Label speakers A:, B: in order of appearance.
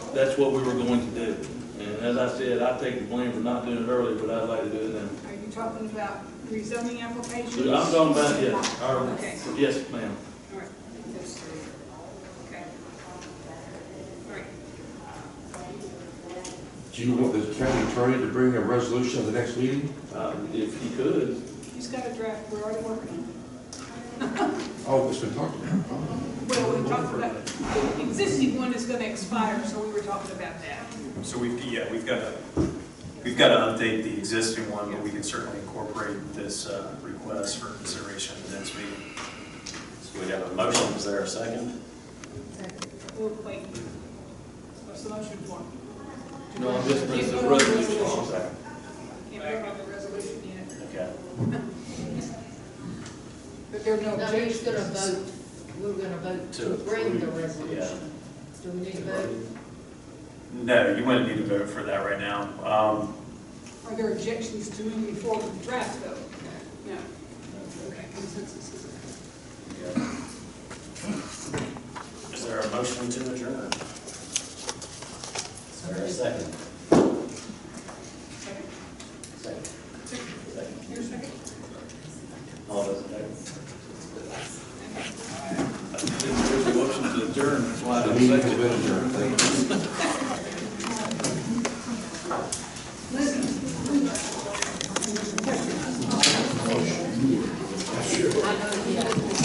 A: that's what we were going to do. And as I said, I take the blame for not doing it earlier, but I'd like to do it now.
B: Are you talking about rezoning applications?
A: So I'm talking about, yes,
B: Okay.
A: our, yes, ma'am.
B: All right, those three. Okay. All right,
C: Do you want the county attorney to bring a resolution to the next meeting?
A: Uh, if he could,
B: he's got a draft, we're already working on
C: Oh, it's been talked about.
B: it. Well, we talked about, the existing one is gonna expire, so we were talking about that.
D: So we've, yeah, we've got to, we've got to update the existing one, but we can certainly incorporate this uh, request for consideration at the next meeting. So we have a motion, is there a second?
B: We'll wait. What's the motion for?
A: no, I'm just bringing
B: Can't
A: the
B: vote on the
A: resolution.
B: Can't vote on the resolution yet,
D: Okay.
B: but there are no
E: No, we're just gonna
B: objections.
E: vote, we're gonna vote to
D: To
E: bring the
D: approve, yeah.
E: resolution. Do we need to vote?
D: No, you wouldn't need to vote for that right now. Um,
B: Are there objections to moving forward with the draft, though? No. Okay, consensus is there.
D: Is there a motion to adjourn? Is there a second?
B: Second.
D: Second. Second.
B: Your second?
D: All those in favor?
A: There's a motion to adjourn, that's why I
C: The
A: don't
C: meeting
A: second
C: has
A: it.
C: been